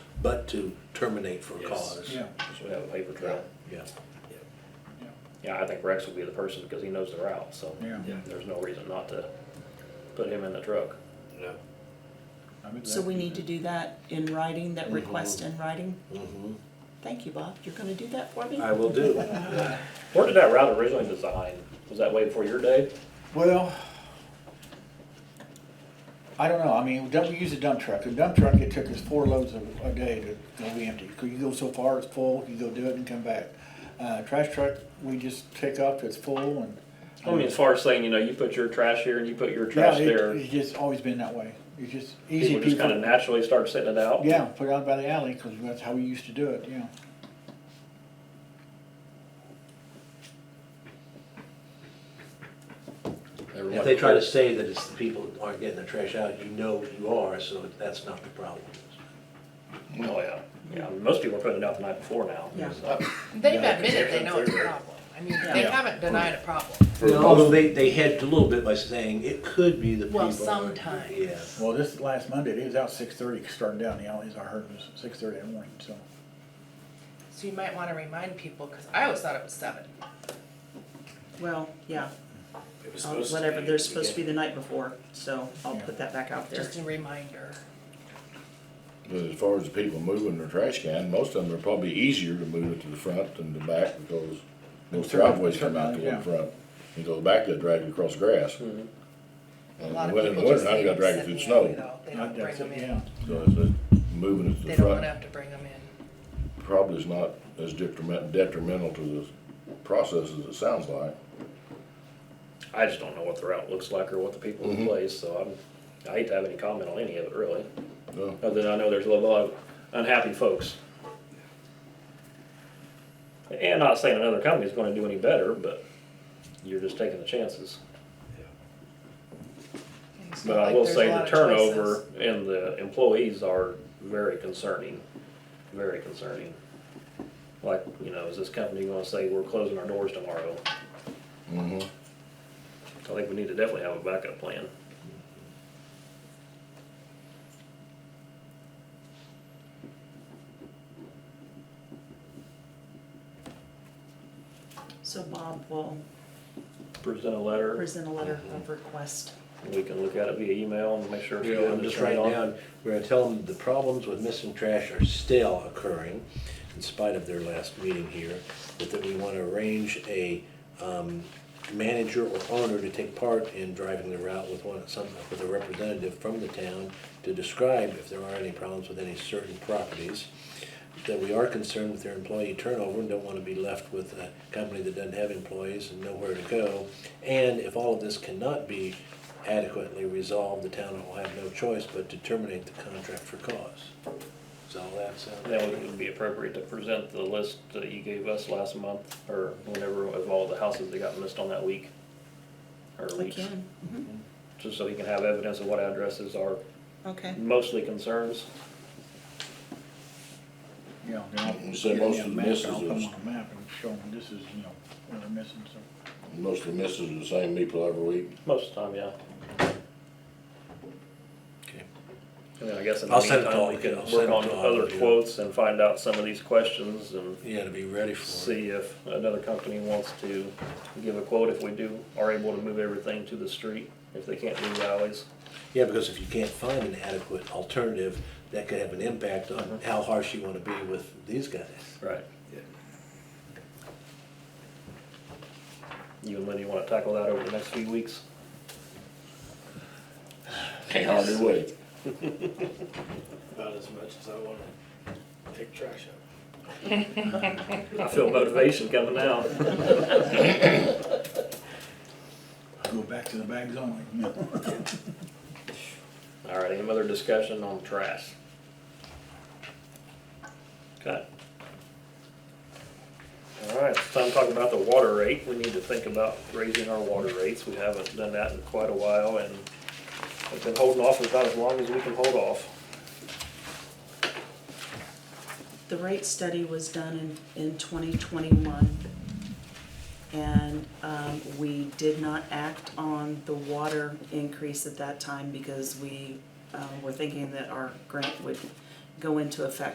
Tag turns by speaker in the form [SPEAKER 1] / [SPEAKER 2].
[SPEAKER 1] but to terminate for
[SPEAKER 2] Yes.
[SPEAKER 1] cause.
[SPEAKER 3] Yeah,
[SPEAKER 4] So we have a paper trail.
[SPEAKER 1] Yeah.
[SPEAKER 3] yeah,
[SPEAKER 4] Yeah, I think Rex will be the person because he knows the route, so
[SPEAKER 3] yeah.
[SPEAKER 2] Yeah.
[SPEAKER 4] there's no reason not to put him in the truck.
[SPEAKER 1] Yeah.
[SPEAKER 3] I mean,
[SPEAKER 5] So
[SPEAKER 3] that-
[SPEAKER 5] we need to do that in writing,
[SPEAKER 2] Mm-hmm.
[SPEAKER 5] that request in writing?
[SPEAKER 1] Mhm.
[SPEAKER 5] Thank you, Bob, you're gonna do that for me?
[SPEAKER 1] I will do.
[SPEAKER 4] Where did that route originally design? Was that way before your day?
[SPEAKER 3] Well, I don't know, I mean, dump, we use a dump truck, a dump truck, it took us four loads a, a day to go be empty, 'Cause you go so far, it's full, you go do it and come back. Uh, trash truck, we just take off, till it's full and. uh,
[SPEAKER 4] I mean, as far as saying, you know, you put your trash here and you put your
[SPEAKER 3] Yeah,
[SPEAKER 4] Oh, trash
[SPEAKER 3] it-
[SPEAKER 4] there,
[SPEAKER 3] It's just always been that way, it's just easy.
[SPEAKER 4] people just kind of naturally start setting it out.
[SPEAKER 3] Yeah, put it out by the alley, cause that's how we used to do it, yeah.
[SPEAKER 1] If they try to say that it's the people that aren't getting their trash out, you know you are, so that's not the problem.
[SPEAKER 4] Oh, yeah. Yeah, most people are putting it out the night before now.
[SPEAKER 5] Yeah.
[SPEAKER 4] so.
[SPEAKER 6] They've
[SPEAKER 2] Yeah,
[SPEAKER 6] admitted
[SPEAKER 2] because
[SPEAKER 6] they know it's a
[SPEAKER 2] they're-
[SPEAKER 6] problem. I mean, they
[SPEAKER 5] Yeah.
[SPEAKER 6] haven't denied a problem.
[SPEAKER 1] Although they, they hedged a little bit by saying it could be the people.
[SPEAKER 6] Well,
[SPEAKER 1] that aren't-
[SPEAKER 6] sometimes.
[SPEAKER 1] Yeah.
[SPEAKER 3] Well, this last Monday, it was out six thirty, starting down the alleys, I heard it was six thirty in the morning, so.
[SPEAKER 6] So you might wanna remind people, cause I always thought it was seven.
[SPEAKER 5] Well, yeah,
[SPEAKER 2] It was
[SPEAKER 5] I'll-
[SPEAKER 2] supposed to
[SPEAKER 5] Um, whatever,
[SPEAKER 2] be
[SPEAKER 5] they're supposed to be
[SPEAKER 2] again.
[SPEAKER 5] the night before, so I'll
[SPEAKER 3] Yeah.
[SPEAKER 5] put that back out there.
[SPEAKER 6] Just a reminder.
[SPEAKER 7] But as far as the people moving their trash can, most of them are probably easier to move it to the front than the back because most driveways come out to the
[SPEAKER 3] Yeah.
[SPEAKER 7] one front. Mm-hmm. You go back, they drag it across grass.
[SPEAKER 4] Mhm.
[SPEAKER 6] A
[SPEAKER 7] And
[SPEAKER 6] lot of
[SPEAKER 7] when-
[SPEAKER 6] people
[SPEAKER 7] when
[SPEAKER 6] just
[SPEAKER 7] I
[SPEAKER 6] leave
[SPEAKER 7] got
[SPEAKER 6] them
[SPEAKER 7] dragged
[SPEAKER 6] sit in
[SPEAKER 7] through
[SPEAKER 6] the
[SPEAKER 7] snow.
[SPEAKER 6] alley though. They don't bring
[SPEAKER 3] That's it,
[SPEAKER 6] them in.
[SPEAKER 3] yeah.
[SPEAKER 7] So it's, uh, moving it to
[SPEAKER 6] They
[SPEAKER 7] the
[SPEAKER 6] don't wanna
[SPEAKER 7] front
[SPEAKER 6] have to bring them in.
[SPEAKER 7] probably is not as detriment, detrimental to the process as it sounds like.
[SPEAKER 4] I just don't know what the route looks like or what the people in
[SPEAKER 7] Mhm.
[SPEAKER 4] place, so I'm, I hate to have any comment on any of it, really.
[SPEAKER 7] No,
[SPEAKER 4] Other than I know there's a lot of unhappy folks. And not saying another company's gonna do any better, but you're just taking the chances.
[SPEAKER 6] It's not
[SPEAKER 4] But I
[SPEAKER 6] like
[SPEAKER 4] will
[SPEAKER 6] there's
[SPEAKER 4] say
[SPEAKER 6] a
[SPEAKER 4] the
[SPEAKER 6] lot of
[SPEAKER 4] turnover
[SPEAKER 6] choices.
[SPEAKER 4] and the employees are very concerning, very concerning. Like, you know, is this company gonna say we're closing our doors tomorrow?
[SPEAKER 7] mhm.
[SPEAKER 4] I think we need to definitely have a backup plan.
[SPEAKER 5] So Bob will
[SPEAKER 4] Present a letter,
[SPEAKER 5] present a letter of
[SPEAKER 2] Mm-hmm.
[SPEAKER 5] request.
[SPEAKER 4] we can look at it via email and make sure. it's
[SPEAKER 1] You
[SPEAKER 4] good
[SPEAKER 1] know,
[SPEAKER 4] to
[SPEAKER 1] just
[SPEAKER 4] turn
[SPEAKER 1] write
[SPEAKER 4] it on.
[SPEAKER 1] down, we're gonna tell them the problems with missing trash are still occurring in spite of their last meeting here, but that we wanna arrange a, um, manager or owner to take part in driving the route with one, some, with a representative from the town to describe if there are any problems with any certain properties, that we are concerned with their employee turnover and don't wanna be left with a company that doesn't have employees and nowhere to go. And if all of this cannot be adequately resolved, the town will have no choice but to terminate the contract for cause. So that's, uh,
[SPEAKER 4] Then it would be appropriate to present the list that you gave us last month, or whenever, of all the houses that got missed on that week. Or
[SPEAKER 5] I
[SPEAKER 4] weeks,
[SPEAKER 5] can,
[SPEAKER 4] just so he can have evidence of what addresses are
[SPEAKER 5] okay.
[SPEAKER 4] mostly concerns.
[SPEAKER 3] Yeah. then I'll-
[SPEAKER 7] You said
[SPEAKER 3] yeah,
[SPEAKER 7] most
[SPEAKER 3] yeah,
[SPEAKER 7] of the
[SPEAKER 3] map,
[SPEAKER 7] misses
[SPEAKER 3] I'll put 'em
[SPEAKER 7] is-
[SPEAKER 3] on a map and show them, this is, you know, where they're missing, so.
[SPEAKER 7] Most of the misses are the same people every week.
[SPEAKER 4] Most of the time, yeah.
[SPEAKER 1] okay.
[SPEAKER 4] And then I guess in the
[SPEAKER 1] I'll send it to
[SPEAKER 4] meantime,
[SPEAKER 1] all
[SPEAKER 4] we
[SPEAKER 1] of
[SPEAKER 4] can
[SPEAKER 1] you. I'll send
[SPEAKER 4] work
[SPEAKER 1] it
[SPEAKER 4] on
[SPEAKER 1] to all of
[SPEAKER 4] other
[SPEAKER 1] you.
[SPEAKER 4] quotes and find out some of these questions and
[SPEAKER 1] you gotta be ready for it.
[SPEAKER 4] see if another company wants to give a quote, if we do, are able to move everything to the street, if they can't do alleys.
[SPEAKER 1] Yeah, because if you can't find an adequate alternative, that could have an impact on how harsh you wanna be with these guys.
[SPEAKER 4] Right.
[SPEAKER 1] Yeah.
[SPEAKER 4] You and Lenny wanna tackle that over the next few weeks?
[SPEAKER 7] Can't hardly wait.
[SPEAKER 2] About as much as I wanna take trash out.
[SPEAKER 4] I feel motivation coming out.
[SPEAKER 3] Go back to the bags only. No.
[SPEAKER 4] All right, any other discussion on trash? Okay. All right, it's time to talk about the water rate. We need to think about raising our water rates. We haven't done that in quite a while and we've been holding off about as long as we can hold off.
[SPEAKER 5] The rate study was done in, in twenty twenty-one. And, um, we did not act on the water increase at that time because we, uh, were thinking that our grant would go into effect